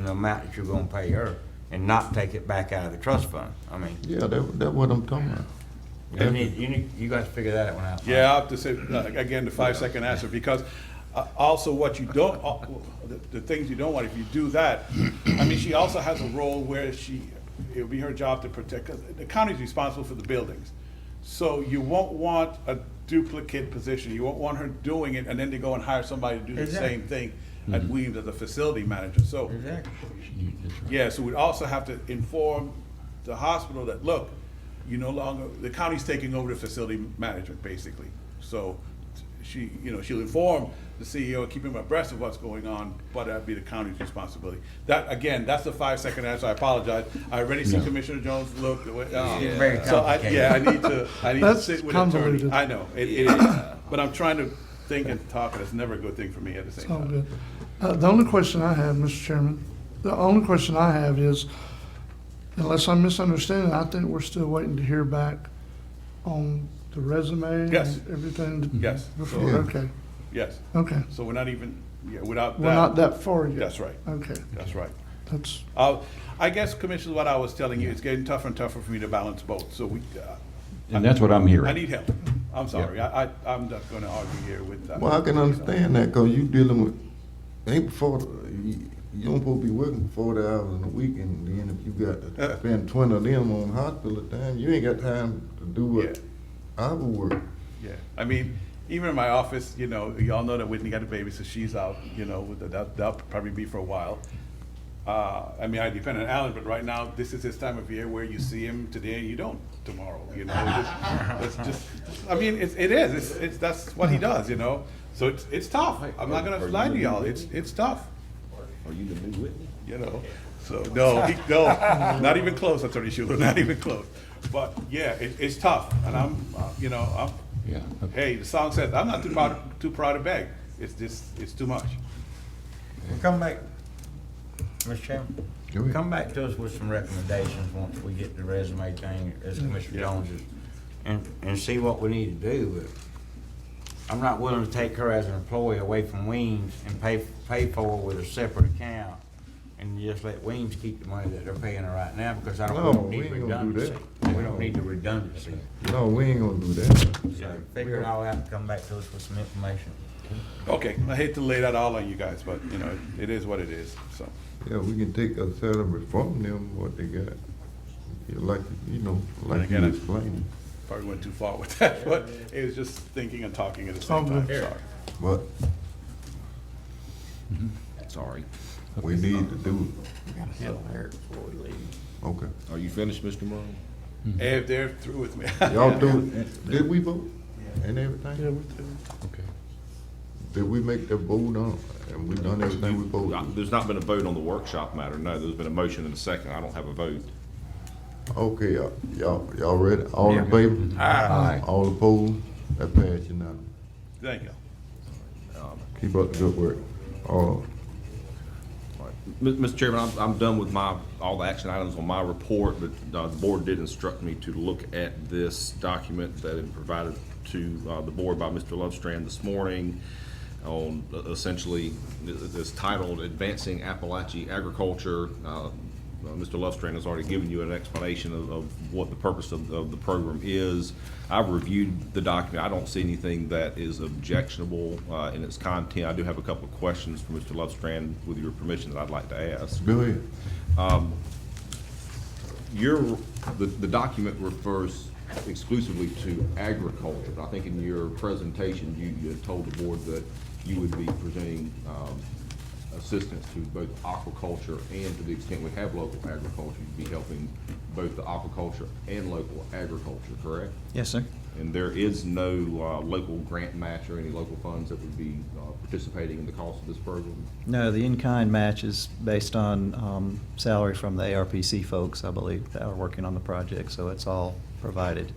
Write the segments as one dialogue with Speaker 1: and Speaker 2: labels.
Speaker 1: amount that you're gonna pay her and not take it back out of the trust fund. I mean,
Speaker 2: Yeah, that, that what I'm talking about.
Speaker 1: you need, you need, you guys figure that one out.
Speaker 3: Yeah, I'll have to say, uh, again, the five-second answer, because uh, also what you don't, uh, the- the things you don't want, if you do that, I mean, she also has a role where she, it'll be her job to protect, 'cause the county's responsible for the buildings. So you won't want a duplicate position, you won't want her doing it, and then to go and hire somebody to do the
Speaker 1: Exactly.
Speaker 3: same thing at Weems as a facility manager, so.
Speaker 1: Exactly.
Speaker 3: Yeah, so we'd also have to inform the hospital that, look, you no longer, the county's taking over the facility management, basically. So she, you know, she'll inform the CEO, keep him abreast of what's going on, but that'd be the county's responsibility. That, again, that's the five-second answer, I apologize. I already see
Speaker 2: No.
Speaker 3: Commissioner Jones look, the way-
Speaker 1: It's very
Speaker 3: uh, so I,
Speaker 1: complicated.
Speaker 3: yeah, I need to, I need to
Speaker 4: That's
Speaker 3: sit with an attorney.
Speaker 4: convoluted.
Speaker 3: I know, it, it is, but I'm trying to think and talk, and it's never a good thing for me at the same
Speaker 4: All
Speaker 3: time.
Speaker 4: good. Uh, The only question I have, Mr. Chairman, the only question I have is, unless I'm misunderstanding, I think we're still waiting to hear back on the resume and
Speaker 3: Yes.
Speaker 4: everything.
Speaker 3: Yes.
Speaker 4: Before,
Speaker 2: Yeah.
Speaker 4: okay,
Speaker 3: Yes,
Speaker 4: okay.
Speaker 3: so we're not even, yeah, without that.
Speaker 4: We're not that far yet.
Speaker 3: That's right.
Speaker 4: Okay,
Speaker 3: That's right.
Speaker 4: that's,
Speaker 3: Uh, I guess, Commissioner, what I was telling you, it's getting tougher and tougher for me to balance both, so we, uh,
Speaker 5: And that's what I'm
Speaker 3: I
Speaker 5: hearing.
Speaker 3: need help. I'm sorry, I, I, I'm not gonna argue here with uh, that.
Speaker 2: Well, I can understand that, cause you dealing with, ain't before, the- you, you don't supposed to be working forty hours in a week, and then if you got to spend twenty of them on hospital time, you ain't got time to do what I would work.
Speaker 3: Yeah, I mean, even in my office, you know, y'all know that Whitney got a baby, so she's out, you know, with the- that, that'll probably be for a while. Uh, I mean, I depend on Alan, but right now, this is his time of year where you see him today and you don't tomorrow, you know? It's it's just, I mean, it's, it is, it's, it's, that's what he does, you know? So it's, it's tough. I'm not gonna lie to y'all, it's, it's tough.
Speaker 5: Are you the new Whitney?
Speaker 3: you know. So no, he, no, not even close, Attorney Shuler, not even close. But yeah, it, it's tough, and I'm, uh, you know, I'm.
Speaker 5: Yeah, okay.
Speaker 3: Hey, the song says, I'm not too proud, too proud to beg. It's just, it's too much.
Speaker 1: Well, Come back, Mr. Chairman.
Speaker 2: Go ahead.
Speaker 1: Come back to us with some recommendations once we get the resume thing, as
Speaker 2: Mm-hmm.
Speaker 1: Commissioner Jones is, and, and see what we need to do, but I'm not willing to take her as an employee away from Weems and pay, pay for her with a separate account, and just let Weems keep the money that they're paying her right now, because I
Speaker 2: No,
Speaker 1: don't we don't need
Speaker 2: we ain't gonna do
Speaker 1: redundancy. We don't need the redundancy,
Speaker 2: No, we ain't gonna do that.
Speaker 1: so figure it all out and come back to us with some information.
Speaker 3: Okay, I hate to lay that all on you guys, but you know, it is what it is. So
Speaker 2: Yeah, we can take a salary from them, what they got. Yeah, Like, you know, like you
Speaker 3: again, I-
Speaker 2: explained,
Speaker 3: probably went too far with that, but it was just thinking and talking at the same time.
Speaker 4: Okay.
Speaker 3: Sorry.
Speaker 2: but
Speaker 5: Sorry.
Speaker 2: we need to do it. Okay.
Speaker 5: Are you finished, Mr. Morrow?
Speaker 3: If they're through with me.
Speaker 2: Y'all do, did we vote and everything?
Speaker 4: yeah, we do.
Speaker 5: Okay.
Speaker 2: Did we make that vote on, and we done everything we voted?
Speaker 6: Uh, There's not been a vote on the workshop matter, no, there's been a motion and a second, I don't have a vote.
Speaker 2: Okay, y'all- y'all, y'all ready? All in favor? Aye. All opposed? That passed unanimous.
Speaker 3: Thank you.
Speaker 2: Keep up the good work. Uh,
Speaker 6: M- Mr. Chairman, I'm, I'm done with my, all the action items on my report, but uh, the board did instruct me to look at this document that had been provided to uh, the board by Mr. Lovestrand this morning on uh, essentially, it's titled Advancing Appalachian Agriculture. Uh, uh, Mr. Lovestrand has already given you an explanation of, of what the purpose of, of the program is. I've reviewed the document. I don't see anything that is objectionable uh, in its content. I do have a couple of questions for Mr. Lovestrand, with your permission, that I'd like to ask.
Speaker 2: go ahead.
Speaker 6: Your, the, the document refers exclusively to agriculture. I think in your presentation, you, you had told the board that you would be presenting, um, assistance to both aquaculture and to the extent we have local agriculture, you'd be helping both the aquaculture and local agriculture, correct?
Speaker 7: Yes, sir.
Speaker 6: And there is no, uh, local grant match or any local funds that would be, uh, participating in the cost of this program?
Speaker 7: No, the in-kind match is based on um, salary from the ARPC folks, I believe, that are working on the project, so it's all provided.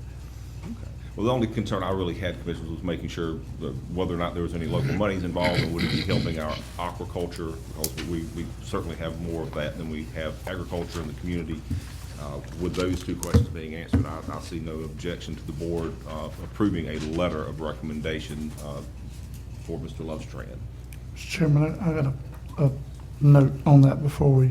Speaker 6: Well, the only concern I really had, Commissioners, was making sure that whether or not there was any local monies involved, and would it be helping our aquaculture? Because we, we certainly have more of that than we have agriculture in the community. Uh, With those two questions being answered, I, I see no objection to the board uh, approving a letter of recommendation uh, for Mr. Lovestrand.
Speaker 4: Mr. Chairman, I I got a, a note on that before we